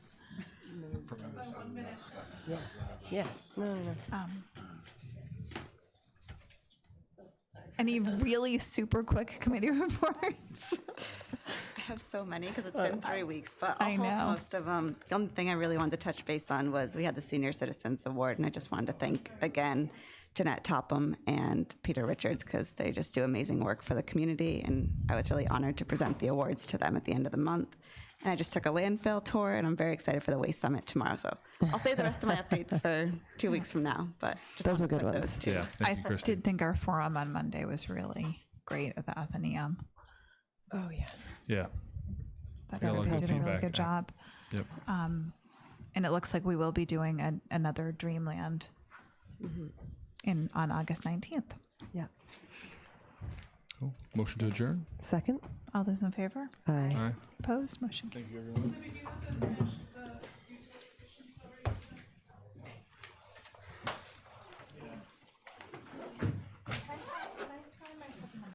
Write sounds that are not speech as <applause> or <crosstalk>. Yeah, no, no, no. Any really super quick committee <laughs> reports? I have so many because it's been three weeks, but I'll I hold know. most of them. The only thing I really wanted to touch base on was we had the Senior Citizens Award, and I just wanted to thank again Jeanette Topham and Peter Richards because they just do amazing work for the community, and I was really honored to present the awards to them at the end of the month. And I just took a landfill tour, and I'm very excited for the Waste Summit tomorrow. So I'll save the rest of my updates for two weeks from now. But just Those were wanted to good put ones. Those two. Yeah, I thank you, th- Kristen. did think our forum on Monday was really great at the Athenaeum. Oh, yeah. Yeah, That Yeah, a lot of everybody good did a really feedback, good yeah. job. Um, yep. And it looks like we will be doing an another Dreamland Mm-hmm. in, on August 19th. Yeah. Uh, Cool. Motion to adjourn. Second? All those in favor? Aye. All right. Opposed? Motion carries. Thank you, everyone.